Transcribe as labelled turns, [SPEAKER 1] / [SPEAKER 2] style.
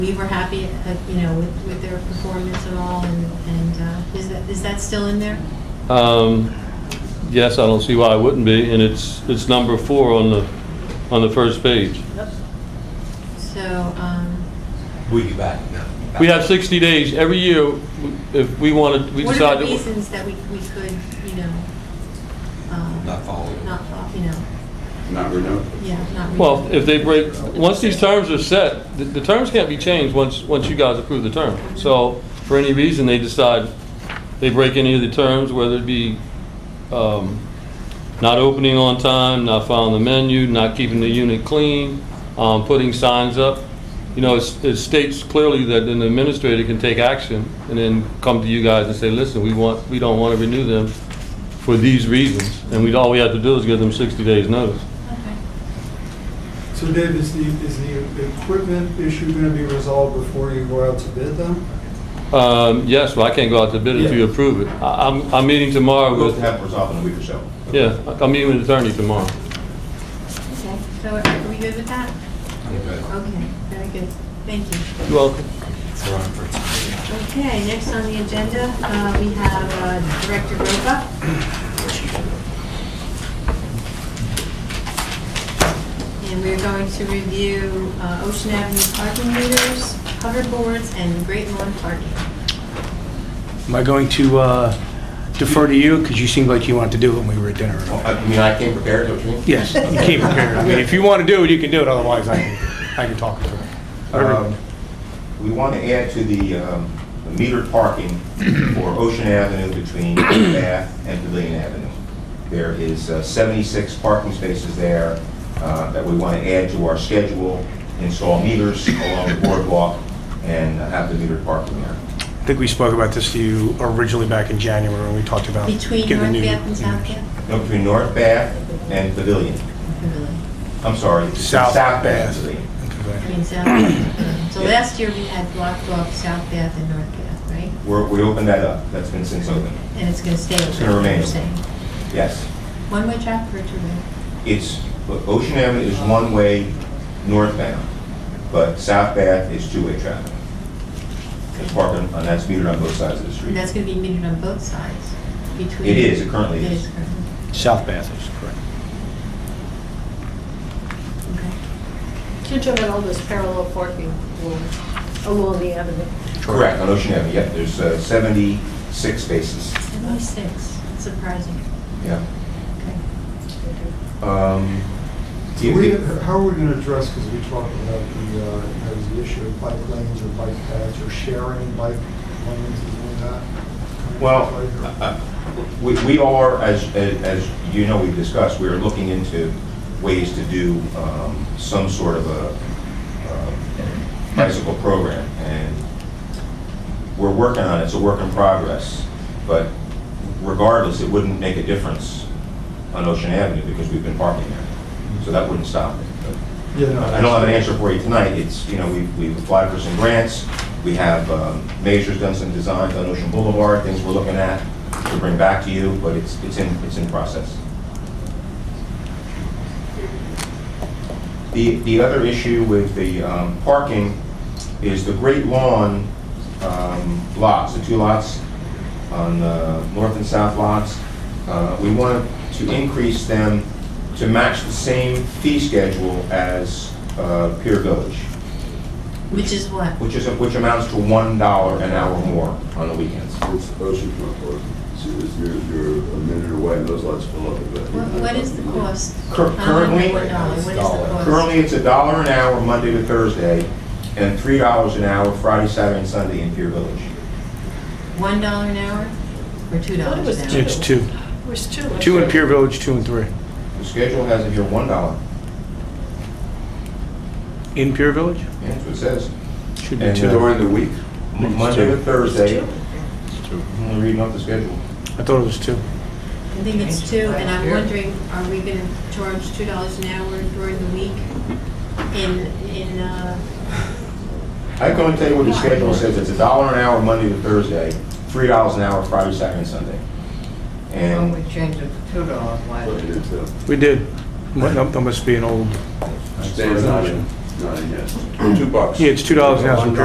[SPEAKER 1] We were happy, uh, you know, with, with their performance and all, and, and uh, is that, is that still in there?
[SPEAKER 2] Um, Yes, I don't see why I wouldn't be, and it's, it's number four on the, on the first page.
[SPEAKER 1] So, um,
[SPEAKER 3] We'll be back now.
[SPEAKER 2] We have 60 days, every year, if we wanted, we
[SPEAKER 1] what
[SPEAKER 2] decide
[SPEAKER 1] are the
[SPEAKER 2] that... we-
[SPEAKER 1] reasons that we, we could, you know, um,
[SPEAKER 3] Not following.
[SPEAKER 1] not, fo- you know,
[SPEAKER 4] Not renewed.
[SPEAKER 1] yeah, not.
[SPEAKER 2] Well,
[SPEAKER 1] reasons.
[SPEAKER 2] if they break, once these terms are set, the, the terms can't be changed once, once you guys approve the term. So, for any reason, they decide, they break any of the terms, whether it be, um, not opening on time, not following the menu, not keeping the unit clean, um, putting signs up. You know, it's- it states clearly that an administrator can take action and then come to you guys and say, listen, we want, we don't want to renew them for these reasons. And we, all we have to do is give them sixty days notice.
[SPEAKER 1] Okay.
[SPEAKER 5] So Dave, is the, is the equipment issue going to be resolved before you go out to bid them?
[SPEAKER 2] Um, Yes, well, I can't go out to bid if you
[SPEAKER 5] Yeah.
[SPEAKER 2] approve it. I- I'm, I'm meeting tomorrow
[SPEAKER 4] We'll
[SPEAKER 2] with,
[SPEAKER 4] have it resolved in a week or so.
[SPEAKER 2] yeah, I'm meeting with attorney tomorrow.
[SPEAKER 1] Okay, so are we good with that? Okay, very good, thank you.
[SPEAKER 2] You're welcome.
[SPEAKER 3] We're on for time.
[SPEAKER 1] Okay, next on the agenda, uh, we have uh, Director Roca. And we're going to review uh, Ocean Avenue parking meters, hoverboards, and Great Lawn parking.
[SPEAKER 6] Am I going to uh, defer to you, because you seemed like you wanted to do it when we were at dinner?
[SPEAKER 4] Well, I mean, I came prepared, don't you?
[SPEAKER 6] Yes, you came prepared. I mean, if you want to do it, you can do it, otherwise I can, I can talk to
[SPEAKER 4] Um,
[SPEAKER 6] her.
[SPEAKER 4] We want to add to the um, the metered parking for Ocean Avenue between Bath and Pavilion Avenue. There is uh, 76 parking spaces there uh, that we want to add to our schedule, install meters along the boardwalk, and have the metered parking there.
[SPEAKER 6] I think we spoke about this to you originally back in January when we talked about.
[SPEAKER 1] Between
[SPEAKER 6] getting the
[SPEAKER 1] North
[SPEAKER 6] new-
[SPEAKER 1] Bath and South Bath?
[SPEAKER 4] No, Between North Bath and Pavilion.
[SPEAKER 1] Pavilion.
[SPEAKER 4] I'm sorry. between
[SPEAKER 6] South
[SPEAKER 4] and
[SPEAKER 6] Bath.
[SPEAKER 4] Pavilion.
[SPEAKER 1] I mean, South Bath. Pavilion. So last year, we had blocked off South Bath and North Bath, right?
[SPEAKER 4] We're- We opened that up. That's been since open.
[SPEAKER 1] And it's going to stay.
[SPEAKER 4] It's gonna remain.
[SPEAKER 1] you're saying.
[SPEAKER 4] Yes.
[SPEAKER 1] One-way traffic or two-way?
[SPEAKER 4] It's, Ocean Avenue is one-way northbound, but South Bath is two-way traffic. It's parking, and that's metered on both sides of the street.
[SPEAKER 1] And that's going to be metered on both sides between...
[SPEAKER 4] It is, it currently is.
[SPEAKER 1] currently,
[SPEAKER 6] South Bath is correct.
[SPEAKER 1] okay.
[SPEAKER 7] You're talking about all this parallel parking along- along the avenue.
[SPEAKER 4] Correct, on Ocean Avenue, yep, there's uh, 76 spaces.
[SPEAKER 1] 76, surprising.
[SPEAKER 4] Yeah.
[SPEAKER 1] Okay.
[SPEAKER 4] Um,
[SPEAKER 5] So we, how are we going to address, because we talked about the, uh, you know, the issue of bike lanes or bike paths or sharing bike lanes and all that?
[SPEAKER 4] Well, uh, we we are, as, as as you know, we've discussed, we are looking into ways to do um, some sort of a um, bicycle program, and we're working on it, it's a work in progress, but regardless, it wouldn't make a difference on Ocean Avenue, because we've been parking there, so that wouldn't stop it. But
[SPEAKER 5] Yeah, no,
[SPEAKER 4] I don't have an answer for you tonight. It's, you know, we've we've applied for some grants. We have, um, Mazur's done some designs on Ocean Boulevard, things we're looking at to bring back to you, but it's it's in, it's in process. The the other issue with the um, parking is the Great Lawn um, lots, the two lots on the north and south lots. Uh, We want to increase them to match the same fee schedule as uh, Pier Village,
[SPEAKER 1] Which is what?
[SPEAKER 4] which is, which amounts to $1 an hour more on the weekends.
[SPEAKER 8] It's oceanfront park. So it's- you're, you're a minute away and those lights go up.
[SPEAKER 1] What what is the cost?
[SPEAKER 4] Cur-
[SPEAKER 1] $101,
[SPEAKER 4] Currently,
[SPEAKER 1] Uh, What is the cost?
[SPEAKER 4] currently, it's a dollar an hour Monday to Thursday, and $3 an hour Friday, Saturday, and Sunday in Pier Village.
[SPEAKER 1] $1 an hour or $2 an
[SPEAKER 7] thought it was
[SPEAKER 1] hour?
[SPEAKER 7] two.
[SPEAKER 6] It's two.
[SPEAKER 7] It was two. I
[SPEAKER 6] Two in
[SPEAKER 7] think.
[SPEAKER 6] Pier Village, two and three.
[SPEAKER 4] The schedule has it here $1.
[SPEAKER 6] In Pier Village? uh,
[SPEAKER 4] Yeah, that's what it says.
[SPEAKER 6] Should be
[SPEAKER 4] And
[SPEAKER 6] two.
[SPEAKER 4] during the week?
[SPEAKER 6] It's
[SPEAKER 4] Monday
[SPEAKER 6] two.
[SPEAKER 4] to Thursday.
[SPEAKER 6] two.
[SPEAKER 4] I'm only reading off the schedule.
[SPEAKER 6] I thought it was two.
[SPEAKER 1] I think it's 2, and I'm wondering, are we going to charge $2 an hour during the week in, in, uh,
[SPEAKER 4] I can only tell you what the schedule says, it's a dollar an hour Monday to Thursday, three dollars an hour Friday, Saturday, and Sunday. And
[SPEAKER 8] But it's, uh,
[SPEAKER 6] We did. That must be an old.
[SPEAKER 8] Standard option.
[SPEAKER 9] nine, yes. Two bucks.
[SPEAKER 8] Yeah, it's $2 an hour.